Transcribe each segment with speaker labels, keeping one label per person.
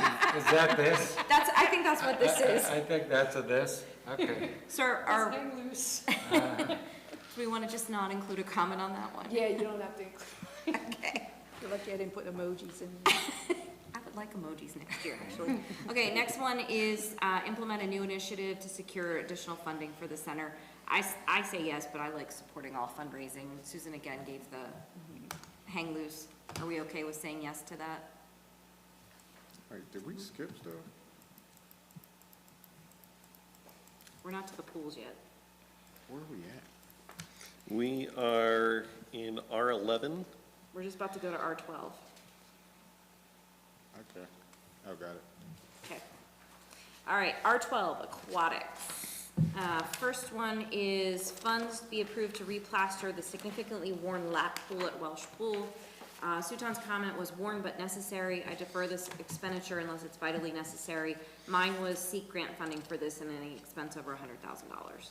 Speaker 1: that this?
Speaker 2: That's, I think that's what this
Speaker 1: I- I-
Speaker 2: is.
Speaker 1: I think that's a this, okay.
Speaker 2: Sir, are,
Speaker 3: loose.
Speaker 2: do we want to just not include a comment on that one?
Speaker 3: Yeah, you don't have to.
Speaker 2: Okay.
Speaker 3: You're lucky I didn't put emojis in.
Speaker 2: I would like emojis next year, actually. Okay, next one is uh, implement a new initiative to secure additional funding for the center. I, s- I say yes, but I like supporting all fundraising. Susan again gave the hang loose. Are we okay with saying yes to that?
Speaker 4: Wait, did we skip stuff?
Speaker 2: We're not to the pools yet.
Speaker 4: Where are we
Speaker 5: We
Speaker 4: at?
Speaker 5: are in R eleven.
Speaker 2: We're just about to go to R twelve.
Speaker 4: Okay, oh, got it.
Speaker 2: Okay. All right, R twelve, aquatics. Uh, first one is funds be approved to replaster the significantly worn lap pool at Welsh Pool. Uh, Suton's comment was worn but necessary. I defer this expenditure unless it's vitally necessary. Mine was seek grant funding for this and any expense over hundred thousand dollars.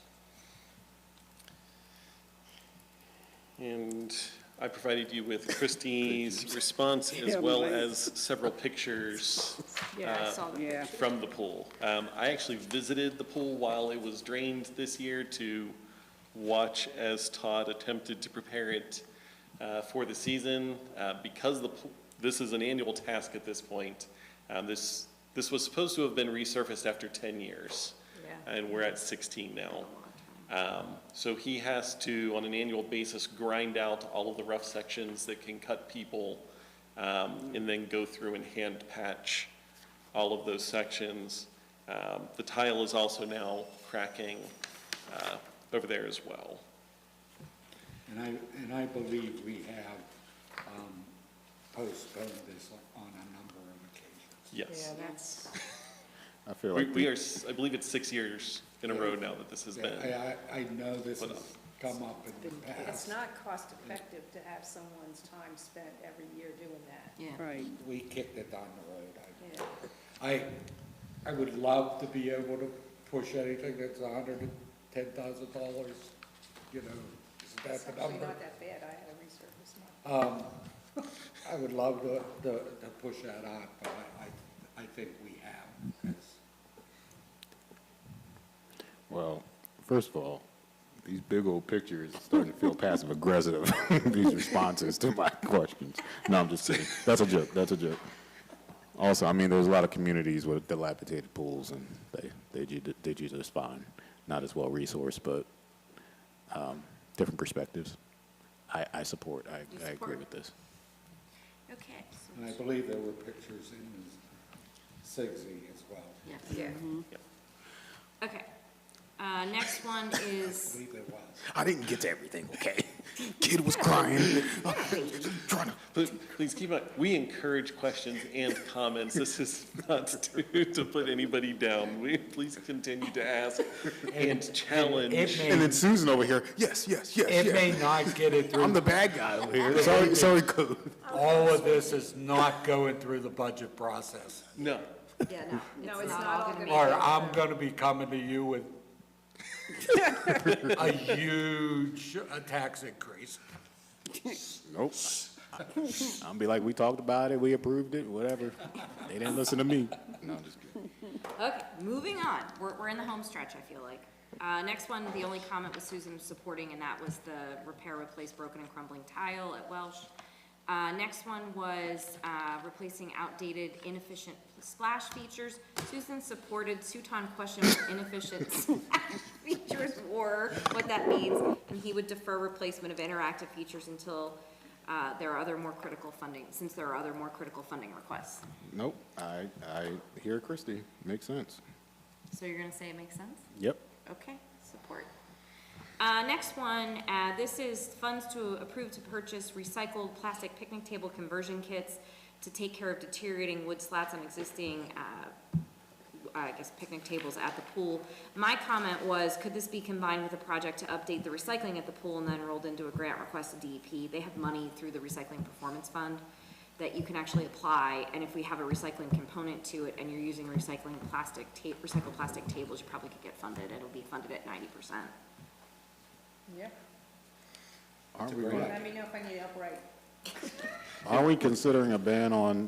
Speaker 5: And I provided you with Christie's response as well as several pictures uh,
Speaker 3: Yeah, I saw
Speaker 2: Yeah.
Speaker 5: from the pool. Um, I actually visited the pool while it was drained this year to watch as Todd attempted to prepare it uh, for the season. Uh, Because the, pool- this is an annual task at this point, um, this, this was supposed to have been resurfaced after 10 years.
Speaker 2: Yeah.
Speaker 5: And we're at 16 now. Um, So he has to, on an annual basis, grind out all of the rough sections that can cut people, um, and then go through and hand patch all of those sections. Um, The tile is also now cracking uh, over there as well.
Speaker 6: And I, and I believe we have um, postponed this on a number of occasions.
Speaker 5: Yes.
Speaker 3: that's.
Speaker 4: I feel
Speaker 5: We
Speaker 4: like,
Speaker 5: we are,
Speaker 4: the-
Speaker 5: s- I believe it's six years in a row now that this has been.
Speaker 6: I, I I know this has
Speaker 5: Hold on.
Speaker 6: come up in the
Speaker 7: It's
Speaker 6: past.
Speaker 7: not cost effective to have someone's time spent every year doing that.
Speaker 2: Yeah.
Speaker 3: Right.
Speaker 6: We kicked it down the road.
Speaker 7: Yeah.
Speaker 6: I, I, I would love to be able to push anything that's a hundred and ten thousand dollars, you know, is
Speaker 7: It's
Speaker 6: that the
Speaker 7: actually
Speaker 6: number?
Speaker 7: not that bad, I had a resurface mine.
Speaker 6: Um, I would love to, to, to push that out, but I, I, I think we have, 'cause
Speaker 4: well, first of all, these big old pictures are starting to feel passive aggressive, these responses to my questions. No, I'm just kidding. That's a joke, that's a joke. Also, I mean, there's a lot of communities with dilapidated pools and they, they, do- they do just fine. Not as well resourced, but, um, different perspectives. I, I support, I,
Speaker 2: You
Speaker 4: I agree
Speaker 2: support.
Speaker 4: with this.
Speaker 2: Okay.
Speaker 6: And I believe there were pictures in Sigsy as well.
Speaker 2: Yeah. Mm-hmm.
Speaker 7: Yeah.
Speaker 2: Okay. Uh, next one
Speaker 6: I
Speaker 2: is,
Speaker 6: believe there was.
Speaker 4: I didn't get to everything, okay? Kid was crying, trying to
Speaker 5: But please keep in mind, we encourage questions and comments. This is not to, to put anybody down. We, please continue to ask and challenge.
Speaker 4: And then Susan over here, yes, yes, yes,
Speaker 6: It may
Speaker 4: yes.
Speaker 6: not get it
Speaker 4: I'm
Speaker 6: through,
Speaker 4: the bad guy over here. Sorry, sorry, code.
Speaker 6: all of this is not going through the budget process.
Speaker 5: No,
Speaker 2: yeah, no.
Speaker 7: No, it's not all gonna be.
Speaker 6: Or I'm gonna be coming to you with a huge uh, tax increase.
Speaker 4: Nope. I'm be like, we talked about it, we approved it, whatever. They didn't listen to me. No, I'm just kidding.
Speaker 2: Okay, moving on. We're, we're in the home stretch, I feel like. Uh, next one, the only comment was Susan supporting, and that was the repair, replace broken and crumbling tile at Welsh. Uh, next one was, uh, replacing outdated inefficient splash features. Susan supported, Suton questioned what inefficient splash features were, what that means, and he would defer replacement of interactive features until, uh, there are other more critical funding, since there are other more critical funding requests.
Speaker 4: Nope, I, I hear Christie. Makes sense.
Speaker 2: So you're gonna say it makes sense?
Speaker 4: Yep.
Speaker 2: Okay, support. Uh, next one, uh, this is funds to approve to purchase recycled plastic picnic table conversion kits to take care of deteriorating wood slats on existing, uh, I guess picnic tables at the pool. My comment was, could this be combined with a project to update the recycling at the pool and then rolled into a grant request to DEP? They have money through the Recycling Performance Fund that you can actually apply, and if we have a recycling component to it and you're using recycling plastic ta, recycled plastic tables, you probably could get funded. It'll be funded at ninety percent.
Speaker 7: Yeah,
Speaker 4: Aren't we, gonna-
Speaker 7: let me know if I need help right.
Speaker 4: aren't we considering a ban on